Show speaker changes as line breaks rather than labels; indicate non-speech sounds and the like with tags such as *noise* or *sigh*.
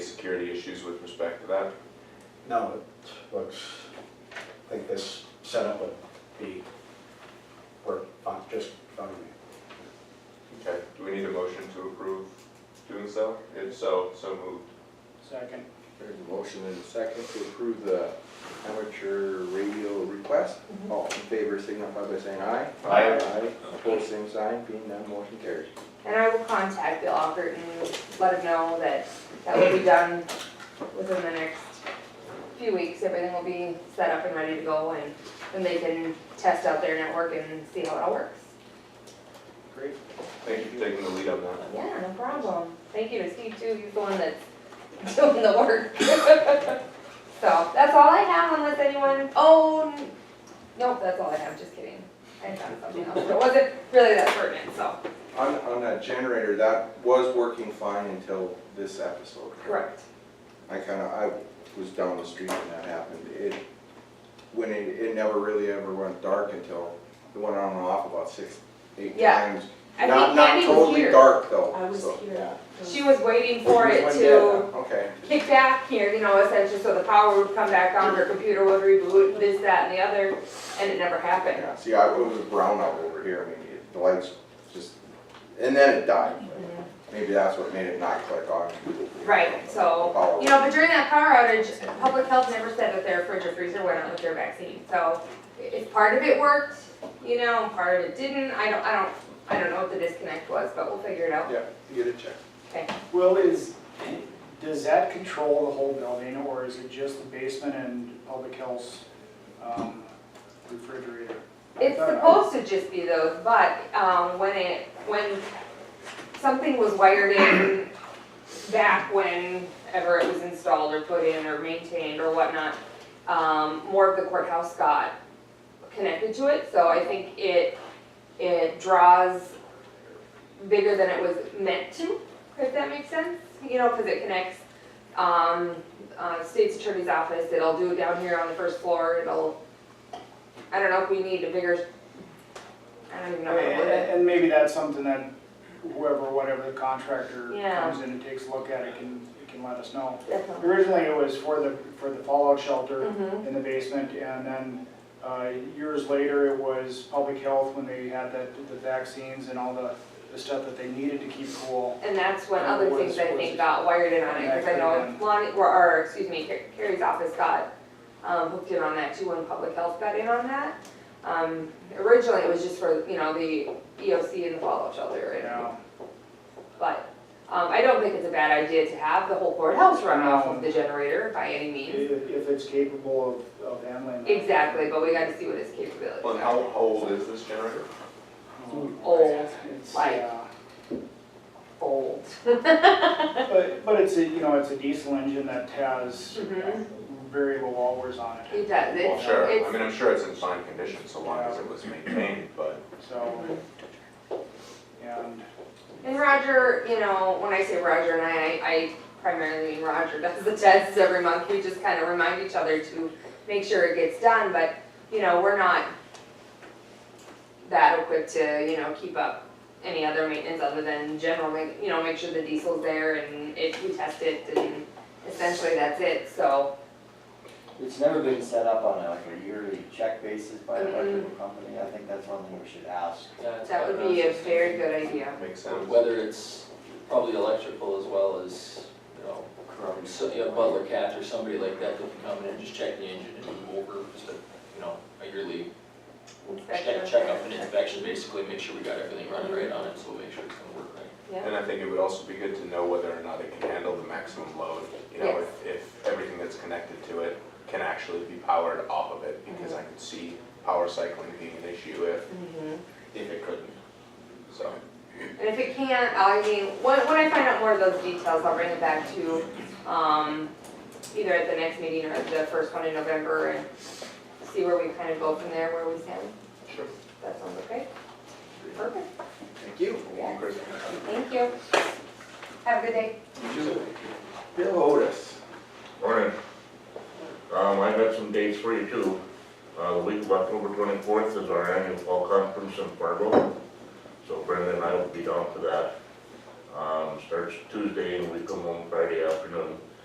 security issues with respect to that?
No, it looks, I think this setup would be, work fine, just fine. with me.
Okay, do we need a motion to approve doing so? If so, so moved.
Second.
There's a motion and a second to approve the amateur radio request.
Mhm.
All in favor signify by saying aye.
Aye.
Opposed, same sign, being none, motion carries.
And I will contact Bill Alpert and let him know that that will be done within the next few weeks. Everything will be set up and ready to go and then they can test out their network and see how it all works.
Great.
Thank you for taking the lead on that.
Yeah, no problem. Thank you to Steve too, he's the one that's *laughs* doing the work. So, that's all I have unless anyone, oh, n- nope, that's all I have, just kidding. I found something else, but it wasn't really that pertinent, so.
On, on that generator, that was working fine until this episode.
Correct.
I kinda, I was down the street when that happened. It, when it, it never really ever went dark until it went on and off about six, eight
Yeah.
times.
I
Not,
think
not
Candy was
totally
here.
dark though.
I was
so,
here.
yeah.
She was waiting for
Which
it
one did,
to
uh, Okay.
kick back here, you know, essentially, so the power would come back on, her computer would reboot, this, that, and the other, and it never happened.
Yeah, see, I, it was a brownout over here, I mean, it- the lights just, and then it died. Maybe that's what made it not click on.
Right, so,
Power.
you know, but during that power outage, public health never said that their fridge or freezer went out with their vaccine, so if part of it worked, you know, and part of it didn't, I don't, I don't, I don't know what the disconnect was, but we'll figure it out.
Yeah, you get a check.
Will, is, does that control the whole building, or is it just the basement and public health um, refrigerator?
It's supposed to just be those, but, um, when it, when something was wired in back whenever it was installed or put in or maintained or whatnot, um, more of the courthouse got connected to it, so I think it, it draws bigger than it was meant to, if that makes sense, you know, cause it connects, um, uh, state's attorney's office, it'll do it down here on the first floor, it'll I don't know if we need a bigger, I don't even know how to
And
word it.
and maybe that's something that whoever, whatever the contractor
Yeah.
comes in and takes a look at, it can, it can let us know.
Definitely.
Originally, it was for the, for the fallout shelter
Mhm.
in the basement, and then uh, years later, it was public health when they had that, the vaccines and all the, the stuff that they needed to keep cool.
And that's when other
What
things
is-
I
what
think
is-
got wired in on it, because I know
Yeah.
Lonnie, or, or, excuse me, Car- Carrie's office got, um, hooked in on that too when public health got in on that. Um, originally it was just for, you know, the EOC and the fallout shelter and,
Yeah.
but, um, I don't think it's a bad idea to have the whole courthouse run off of the generator by any means.
If, if it's capable of, of handling. that.
Exactly, but we gotta see what its capabilities
Well,
are.
and how old is this generator?
Um,
Old,
it's,
like-
yeah.
Old. *laughs*
But, but it's a, you know, it's a diesel engine that has
Mhm.
very low hours on it,
It does,
Well,
it's,
sure, I
it's,
mean, I'm sure it's in fine condition, so long as it was maintained, but
so.
Mm-hmm.
And,
And Roger, you know, when I say Roger and I, I primarily mean Roger *laughs* does the tests every month. We just kind of remind each other to make sure it gets done, but, you know, we're not that equipped to, you know, keep up any other maintenance other than general, ma- you know, make sure the diesel's there and it, we test it and essentially that's it, so.
It's never been set up on a, like a yearly check basis by an
Mm-mm.
electrical company, I think that's one thing we should ask.
Mm-hmm. That would be a very good idea.
makes sense.
Whether it's probably electrical as well as, you know,
Correct.
so, you know, Butler Cat or somebody like that that can come in and just check the engine and move over, just a, you know, a yearly check,
Inspection.
check up and inspection, basically, make sure we got everything running right on it, so make sure it's gonna work right.
Yeah,
And I think it would also be good to know whether or not it can handle the maximum load, you know, if, if everything that's connected to it can actually be powered off of it, because
Mm-hmm.
I could see power cycling being an issue if,
mhm.
if it couldn't, so.
And if it can't, I mean, when, when I find out more of those details, I'll bring it back to, um, either at the next meeting or the first one in November and see where we kind of go from there, where we stand.
Sure.
That sounds okay? Perfect,
Thank you.
yeah. Thank you. Have a good day.
Bill Otis.
Morning. Um, I got some dates for you too. Uh, the week of October twenty-fourth is our annual fall conference in Fargo. So Brenda and I will be down for that. Um, starts Tuesday and we come home Friday afternoon.